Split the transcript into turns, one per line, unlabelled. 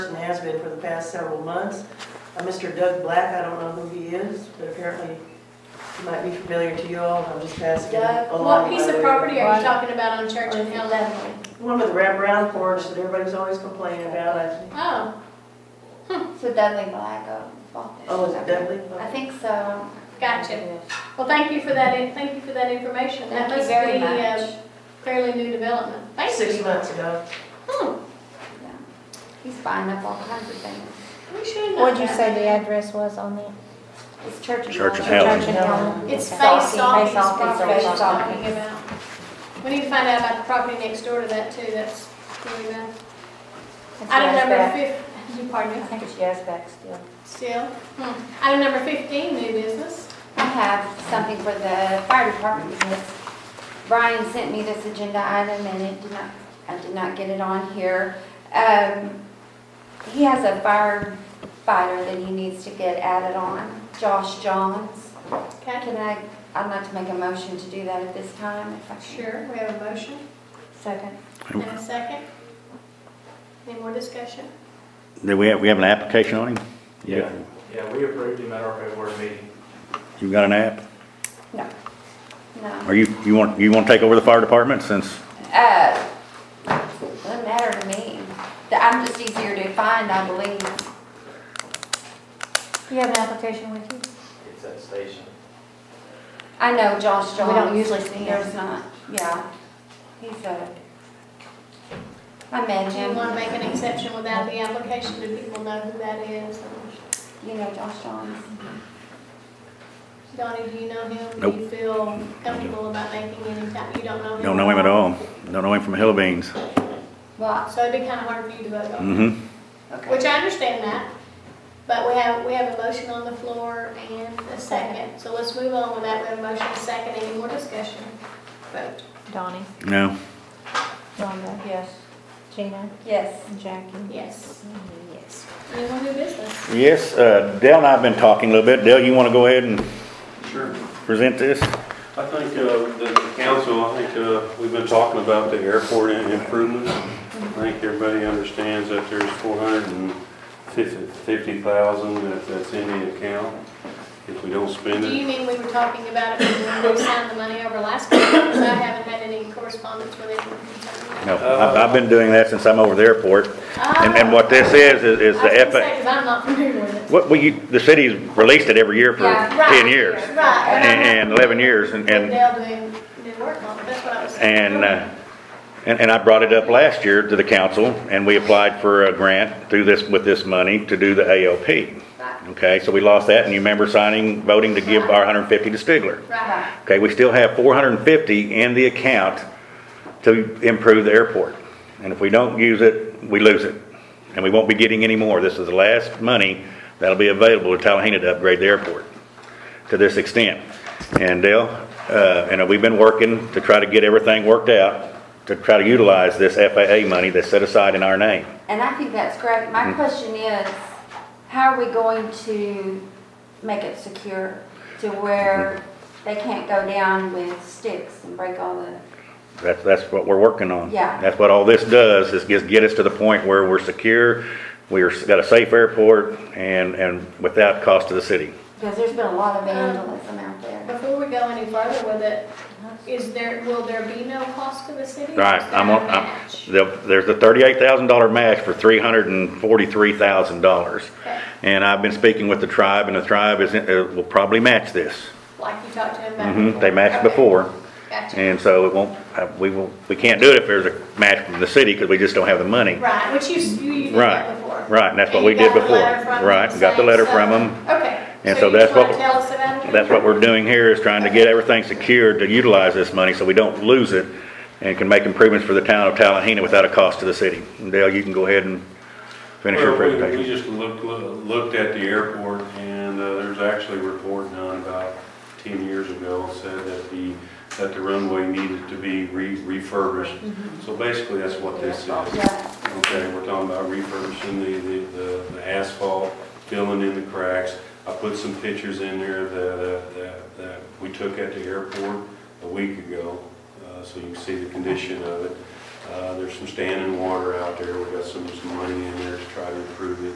and has been for the past several months. Uh, Mr. Doug Black, I don't know who he is, but apparently he might be familiar to you all, I'm just passing it
Doug,
along.
what piece
by
of
way
property are
Right.
you talking about on Church and Hill Avenue?
One with the wraparound porch that everybody's always complaining about, I think.
Oh,
So Dudley Black uh, bought this.
Oh, is it Dudley?
I think so.
gotcha. Well, thank you for that, in- thank you for that information. That
Thank you
must
very
be, uh,
much.
Fairly new development. Thank you.
Six months ago.
Hmm,
Yeah. He's buying up all kinds of things.
we should know
What'd you
that.
say the address was on that?
It's church and.
Church and
Helen.
Helen.
Church and Helen.
It's face
Okay.
off, it's
Face off, it's
property
face
she's
off.
talking about. We need to find out about the property next door to that too, that's really bad.
It's
Item number
Yazbek.
fif, you pardon
I
me,
think it's Yazbek still.
still. Hmm. Item number fifteen, new business.
I have something for the fire department because Brian sent me this agenda item and it did not, I did not get it on here. Um, he has a firefighter that he needs to get added on, Josh Johns.
Okay,
Can I, I'd like to make a motion to do that at this time if I can.
sure, we have a motion
Second.
and a second. Any more discussion?
Do we have, we have an application on him? You
Yeah,
got-
yeah, we approved him at our February meeting.
You got an app?
No. No.
Are you, you want, you want to take over the fire department since,
Uh, doesn't matter to me. I'm just easier to find, I believe.
You have an application with you?
It's at station.
I know Josh Johns.
We don't usually see him.
There's not, yeah. He's a, I met
Do you
him.
want to make an exception without the application? Do people know who that is?
You know Josh Johns?
Donnie, do you know him? Do
Nope.
you feel comfortable about making any type, you don't know him?
don't know him at all? Don't know him from Hill Beans?
Well,
So it'd be kind of hard for you to vote on.
Mm-hmm.
Which
okay.
I understand that, but we have, we have a motion on the floor and a second. So let's move on with that. We have a motion, a second, any more discussion? Vote.
Donnie,
No.
Rhonda,
Yes.
Gina,
Yes.
and Jackie?
Yes.
Yes.
Any more new business?
Yes, uh, Dale and I have been talking a little bit. Dale, you want to go ahead and
Sure.
present this?
I think uh, the council, I think uh, we've been talking about the airport and improvements. I think everybody understands that there's 450,000 that- that's in the account. If we don't spend
Do you
it,
mean we were talking about it when we signed the money over last week? Because I haven't had any correspondence with anyone concerning that.
No, I've, I've been doing that since I'm over the airport. And, and what this is, is is the F,
Because I'm not familiar with it.
what we, the city's released it every year for
Yeah,
right.
ten years.
Right. but I'm not-
And, and eleven years, and, and
Dale doing, did work on it, that's what I was saying.
And, uh, and, and I brought it up last year to the council, and we applied for a grant through this, with this money to do the ALP. Okay, so we lost that, and you remember signing, voting to give our hundred and fifty to Stigler.
Right,
Okay, we still have four hundred and fifty in the account to improve the airport. And if we don't use it, we lose it, and we won't be getting any more. This is the last money that'll be available to Tallahena to upgrade the airport to this extent. And Dale, uh, and we've been working to try to get everything worked out, to try to utilize this FAA money that's set aside in our name.
And I think that's great. My question is, how are we going to make it secure to where they can't go down with sticks and break all the,
That's, that's what we're working on.
Yeah.
That's what all this does, is just get us to the point where we're secure, we're, got a safe airport, and, and without cost to the city.
because there's been a lot of vandalism out there.
before we go any further with it, is there, will there be no cost to the city?
Right,
Is there
I'm
a
on, I'm,
match?
there- there's a thirty-eight thousand dollar match for three hundred and forty-three thousand dollars.
Okay.
And I've been speaking with the tribe, and the tribe is, uh, will probably match this.
Like you talked to him about
hmm
before?
they matched
Okay.
before.
Gotcha.
And so it won't, uh, we will, we can't do it if there's a match from the city because we just don't have the money.
Right, which you, s- you you did
Right,
that before.
right, and that's what
And
we
you
did
got the
before.
letter from them
Right, got the
saying
letter
so.
from them.
Okay.
And
So
so
you
that's
just
what
want to
we-
tell us about it?
That's what we're doing here is trying to get everything secured to utilize this money so we don't lose it and can make improvements for the town of Tallahena without a cost to the city. And Dale, you can go ahead and finish your
Well, we- we
presentation.
just looked, looked at the airport and uh, there's actually a report done about 10 years ago said that the, that the runway needed to be re- refurbished. So basically, that's what this is.
Yeah.
Okay, we're talking about refurbishing the, the- the, the asphalt, filling in the cracks. I put some pictures in there that, that, that uh, we took at the airport a week ago, uh, so you can see the condition of it. Uh, There's some standing water out there, we got some, some money in there to try to improve